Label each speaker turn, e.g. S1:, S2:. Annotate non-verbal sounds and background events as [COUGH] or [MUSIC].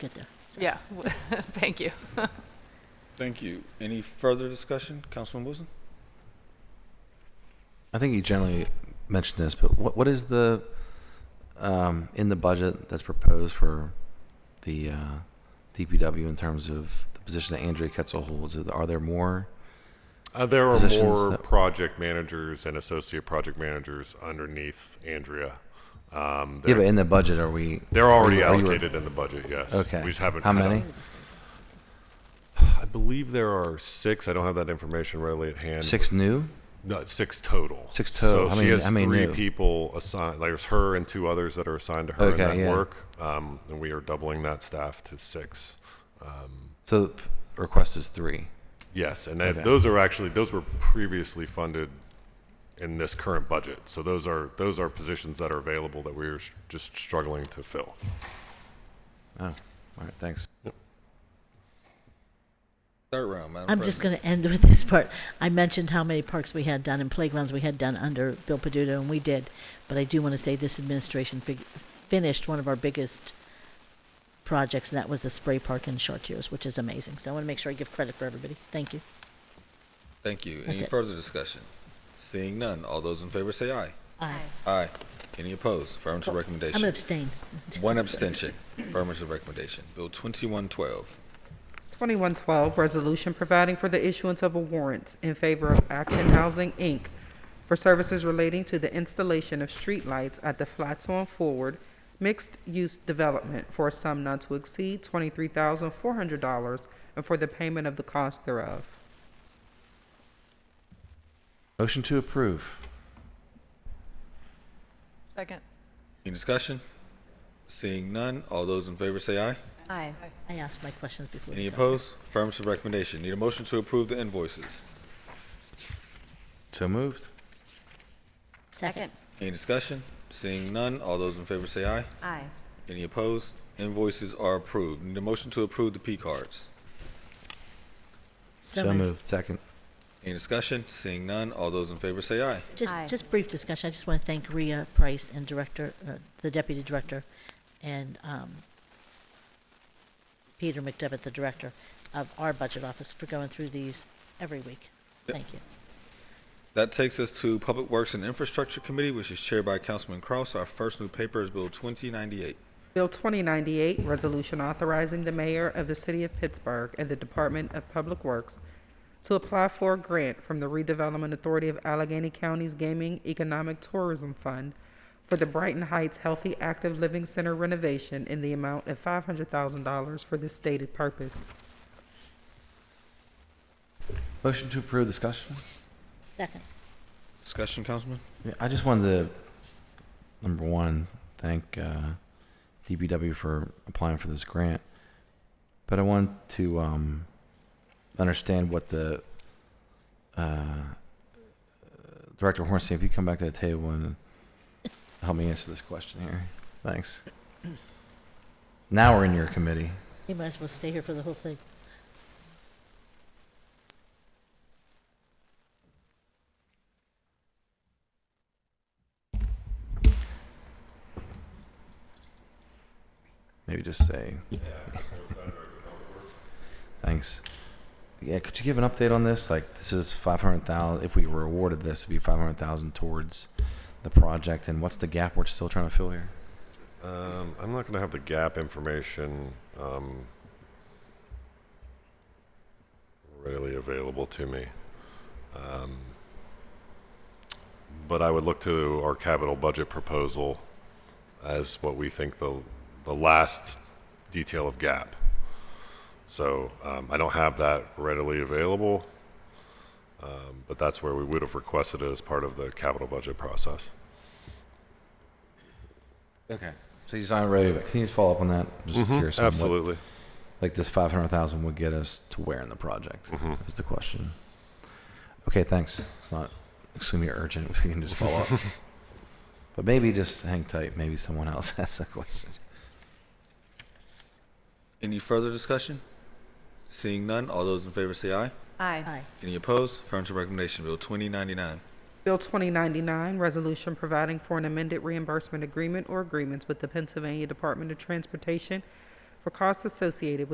S1: get there. So-
S2: Yeah, [LAUGHS] thank you.
S3: Thank you. Any further discussion, Councilman Wilson?
S4: I think you generally mentioned this, but what, what is the, um, in the budget that's proposed for the, uh, DPW in terms of the position that Andrea Ketzel holds? Is- Are there more?
S5: Uh, there are
S4: positions
S5: more
S4: that-
S5: project managers and associate project managers underneath Andrea. Um,
S4: Yeah,
S5: they're,
S4: but in the budget, are we?
S5: they're already
S4: are you-
S5: allocated in the budget. Yes.
S4: Okay.
S5: We just haven't.
S4: How
S5: I don't-
S4: many?
S5: I believe there are six. I don't have that information readily at hand.
S4: Six new?
S5: No, six total.
S4: Six total.
S5: So
S4: How
S5: she
S4: many-
S5: has
S4: how many
S5: three
S4: new?
S5: people assigned. There's her and two others that are assigned to her
S4: Okay,
S5: in that
S4: yeah.
S5: work. Um, and we are doubling that staff to six. Um,
S4: So the request is three.
S5: Yes, and that, those are actually those were previously funded in this current budget. So those are those are positions that are available that we're s- just struggling to fill.
S4: Oh, all right, thanks.
S3: Third round, Madam
S1: I'm just
S3: President.
S1: going to end with this part. I mentioned how many parks we had done and playgrounds we had done under Bill Peduto, and we did. But I do want to say this administration fig- finished one of our biggest projects, and that was the spray park in Chartiers, which is amazing. So I want to make sure I give credit for everybody. Thank you.
S3: Thank you.
S1: That's
S3: Any
S1: it.
S3: further discussion? Seeing none, all those in favor say aye.
S1: Aye.
S3: Aye. Any opposed? Affirmative
S1: Oh, I'm going to
S3: recommendation.
S1: abstain. [LAUGHS]
S3: One abstention. Affirmative recommendation. Bill 2112.
S6: 2112, resolution providing for the issuance of a warrant in favor of Action Housing, Inc. for services relating to the installation of streetlights at the Flatiron Forward mixed-use development for a sum not to exceed $23,400 and for the payment of the cost thereof.
S4: Motion to approve.
S2: Second.
S3: Any discussion? Seeing none, all those in favor say aye.
S2: Aye.
S1: I asked my questions before.
S3: Any
S1: we got-
S3: opposed? Affirmative recommendation. Need a motion to approve the invoices.
S4: So moved.
S1: Second.
S3: Any discussion? Seeing none, all those in favor say aye.
S2: Aye.
S3: Any opposed? Invoices are approved. Need a motion to approve the P cards.
S4: So moved. Second.
S3: Any discussion? Seeing none, all those in favor say aye.
S1: Just,
S2: Aye.
S1: just brief discussion. I just want to thank Rhea Price and Director, uh, the Deputy Director, and um, Peter McDevitt, the Director of our Budget Office, for going through these every week.
S3: Yep.
S1: Thank you.
S3: That takes us to Public Works and Infrastructure Committee, which is chaired by Councilman Kraus. Our first new paper is Bill 2098.
S6: Bill 2098, resolution authorizing the mayor of the city of Pittsburgh and the Department of Public Works to apply for a grant from the Redevelopment Authority of Allegheny County's Gaming Economic Tourism Fund for the Brighton Heights Healthy Active Living Center renovation in the amount of $500,000 for this stated purpose.
S4: Motion to approve discussion?
S1: Second.
S3: Discussion, Councilman?
S4: Yeah, I just wanted to, number one, thank uh, DPW for applying for this grant, but I want to um, understand what the uh, Director Hornstein, if you come back to the table and help me answer this question here, thanks. Now we're in your committee.
S1: You might as well stay here for the whole thing.
S4: Maybe just say. Thanks. Yeah, could you give an update on this? Like, this is five hundred thousand. If we were awarded this, it'd be five hundred thousand towards the project. And what's the gap we're still trying to fill here?
S5: Um, I'm not going to have the gap information um, readily available to me. Um, but I would look to our capital budget proposal as what we think the, the last detail of gap. So um, I don't have that readily available, um, but that's where we would have requested it as part of the capital budget process.
S4: Okay. So you're not ready. But can you just follow up on that? Just curious. on what-
S5: Absolutely.
S4: like this five hundred thousand would get us to where in the project is the question. Okay, thanks. It's not extremely urgent. [LAUGHS] If we can just follow up. But maybe just hang tight. Maybe someone else [LAUGHS] has a question.
S3: Any further discussion? Seeing none, all those in favor say aye.
S2: Aye.
S1: Aye.
S3: Any opposed? Affirmative recommendation. Bill 2099.
S6: Bill 2099, resolution providing for an amended reimbursement agreement or agreements with the Pennsylvania Department of Transportation for costs associated with